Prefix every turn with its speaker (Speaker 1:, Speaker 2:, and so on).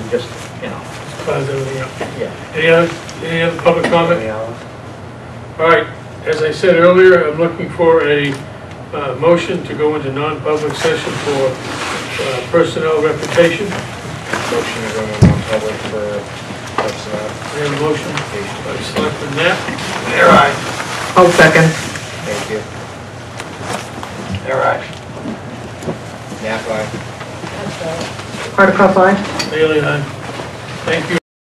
Speaker 1: just, you know,
Speaker 2: Positively, yeah.
Speaker 1: yeah.
Speaker 2: Any other, any other public comment?
Speaker 1: Yeah.
Speaker 2: All right, as I said earlier, I'm looking for a uh, motion to go into non-public session for uh, personnel reputation.
Speaker 3: Motion to go into non-public for personnel.
Speaker 2: We have a motion by Selectman Knapp.
Speaker 4: I'll second.
Speaker 3: Thank you. All right. Nap, aye.
Speaker 4: Hardikoff, aye?
Speaker 2: Bailey, aye. Thank you.